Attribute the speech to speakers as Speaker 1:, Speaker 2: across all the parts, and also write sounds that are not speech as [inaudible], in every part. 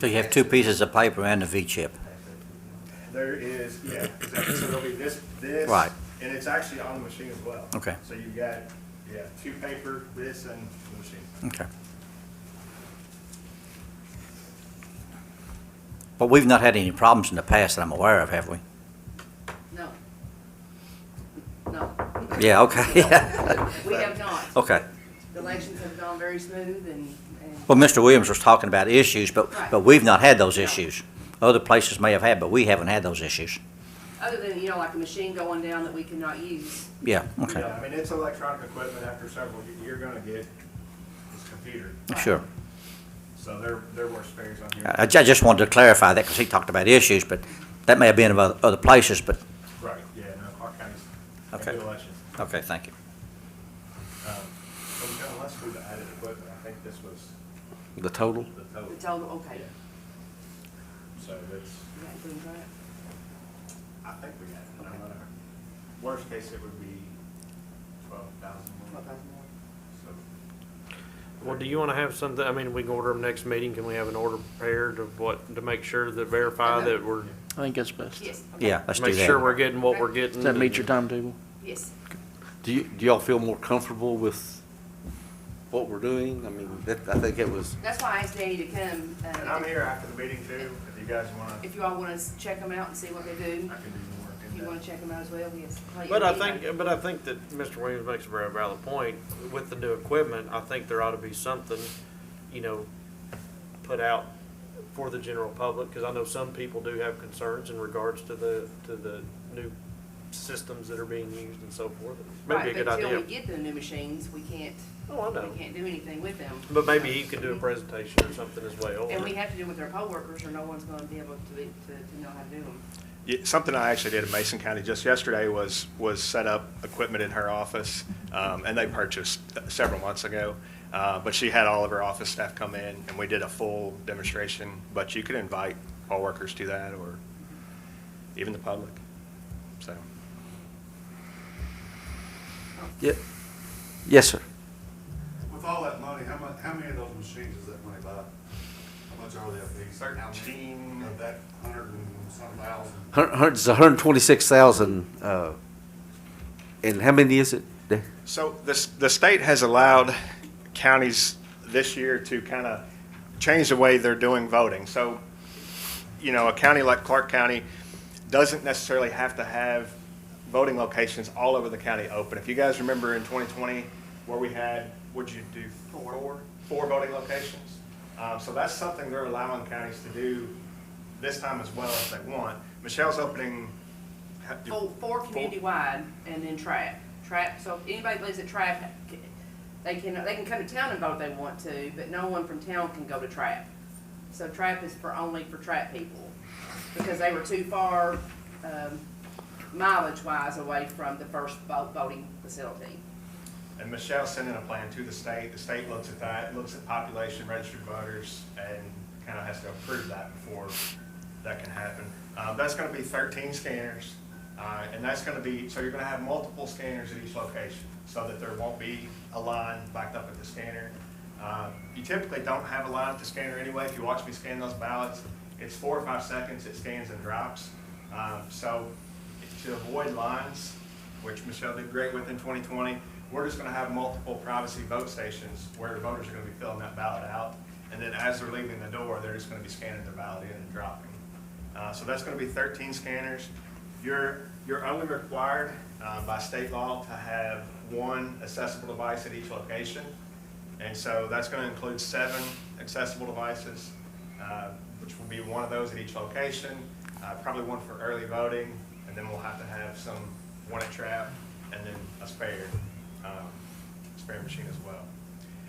Speaker 1: So you have two pieces of paper and a V-chip.
Speaker 2: There is, yeah, exactly. So there'll be this, this.
Speaker 1: Right.
Speaker 2: And it's actually on the machine as well.
Speaker 1: Okay.
Speaker 2: So you've got, yeah, two paper, this and the machine.
Speaker 1: Okay. But we've not had any problems in the past that I'm aware of, have we?
Speaker 3: No. No.
Speaker 1: Yeah,
Speaker 3: [laughs]
Speaker 1: okay.
Speaker 3: We have not.
Speaker 1: [laughs] Okay.
Speaker 3: The elections have gone very smooth and, and,
Speaker 1: Well, Mr. Williams was talking about issues, but,
Speaker 3: Right.
Speaker 1: but we've not had those
Speaker 3: No.
Speaker 1: issues. Other places may have had, but we haven't had those issues.
Speaker 3: other than, you know, like a machine going down that we cannot use.
Speaker 1: Yeah, okay,
Speaker 2: Yeah, I mean, it's electronic equipment after several, you- you're gonna get this computer,
Speaker 1: sure.
Speaker 2: so there, there were spares on here.
Speaker 1: I, I ju- just wanted to clarify that because he talked about issues, but that may have been about other places, but,
Speaker 2: Right, yeah, no, Clark County's a
Speaker 1: Okay.
Speaker 2: good election.
Speaker 1: okay, thank you.
Speaker 2: Um, so we got less food added equipment, I think this was
Speaker 4: The total?
Speaker 2: the total,
Speaker 3: The total, okay.
Speaker 2: so it's,
Speaker 3: You got things right.
Speaker 2: I think we got, it. I'm gonna, worst case, it would be twelve thousand more,
Speaker 3: Twelve thousand more.
Speaker 2: so.
Speaker 5: Well, do you want to have something, I mean, we can order them next meeting, can we have an order prepared of what, to make sure that verify that we're,
Speaker 4: I think that's best.
Speaker 3: Yes. okay.
Speaker 1: Yeah, let's do
Speaker 5: make sure
Speaker 1: that.
Speaker 5: we're getting what we're getting?
Speaker 4: Does that meet your timetable?
Speaker 3: Yes.
Speaker 4: Do you, do y'all feel more comfortable with what we're doing? I mean, that, I think it was,
Speaker 3: That's why I asked Danny to come,
Speaker 2: And I'm
Speaker 3: uh,
Speaker 2: here after the meeting too, if you guys wanna, I can
Speaker 3: if you all want to check them out and see what they
Speaker 2: do
Speaker 3: do.
Speaker 2: the work
Speaker 3: If
Speaker 2: in
Speaker 3: you
Speaker 2: that.
Speaker 3: want to check them out as well, yes. Like,
Speaker 5: But I
Speaker 3: you know,
Speaker 5: think, but I think that Mr. Williams makes a very valid point. With the new equipment, I think there ought to be something, you know, put out for the general public, because I know some people do have concerns in regards to the, to the new systems that are being used and so forth. Maybe a
Speaker 3: Right,
Speaker 5: good
Speaker 3: but until
Speaker 5: idea.
Speaker 3: we get the new machines, we can't,
Speaker 5: Oh, I know.
Speaker 3: we can't do anything with them.
Speaker 5: But maybe he could do a presentation or something as well.
Speaker 3: And we have to do with our poll workers, or no one's gonna be able to, be- to, to know how to do them.
Speaker 2: Yeah, Something I actually did in Mason County just yesterday was, was set up equipment in her office, um, and they purchased several months ago. Uh, But she had all of her office staff come in, and we did a full demonstration, but you could invite all workers to that, or even the public, so.
Speaker 4: yeah, yes, sir.
Speaker 6: With all that money, how much, how many of those machines does that money buy? How much are they a piece?
Speaker 2: Thirteen.
Speaker 6: Of that hundred and some thousand,
Speaker 4: Hun- hun- It's hundred and twenty-six thousand, uh, and how many is it? The-
Speaker 2: So this, the state has allowed counties this year to kind of change the way they're doing voting. So, you know, a county like Clark County doesn't necessarily have to have voting locations all over the county open. If you guys remember in 2020, where we had, would you do four? Four voting locations. Um, So that's something they're allowing counties to do this time as well if they want. Michelle's opening. ha-
Speaker 3: Four, four community-wide, and then trap, trap, so if anybody lives at trap, c- they can, they can come to town and vote if they want to, but no one from town can go to trap. So trap is for, only for trap people, because they were too far, um, mileage-wise away from the first vote, voting facility.
Speaker 2: And Michelle sent in a plan to the state. The state looks at that, looks at population, registered voters, and kind of has to approve that before that can happen. Uh, That's going to be 13 scanners, uh, and that's going to be, so you're going to have multiple scanners at each location so that there won't be a line backed up at the scanner. Uh, You typically don't have a line at the scanner anyway. If you watch me scan those ballots, it's four or five seconds, it scans and drops. Um, So to avoid lines, which Michelle did great with in 2020, we're just going to have multiple privacy vote stations where the voters are going to be filling that ballot out. And then as they're leaving the door, they're just going to be scanning their ballot in and dropping. Uh, So that's going to be 13 scanners. You're, you're only required uh, by state law to have one accessible device at each location. And so that's going to include seven accessible devices, uh, which will be one of those at each location, uh, probably one for early voting, and then we'll have to have some, one at trap, and then a spare, um, spare machine as well.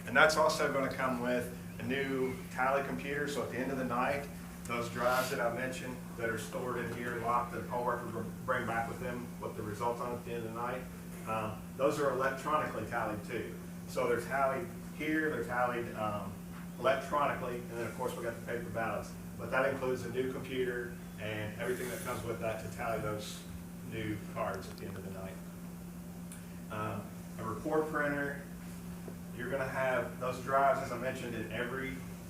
Speaker 2: And that's also going to come with a new tally computer, so at the end of the night, those drives that I mentioned that are stored in here, locked, that poll workers will bring back with them what the results on at the end of the night, um, those are electronically tallied too. So they're tallied here, they're tallied um, electronically, and then of course we got the paper ballots. But that includes a new computer and everything that comes with that to tally those new cards at the end of the night. Um, A report printer, you're gonna have those drives, as I mentioned, in every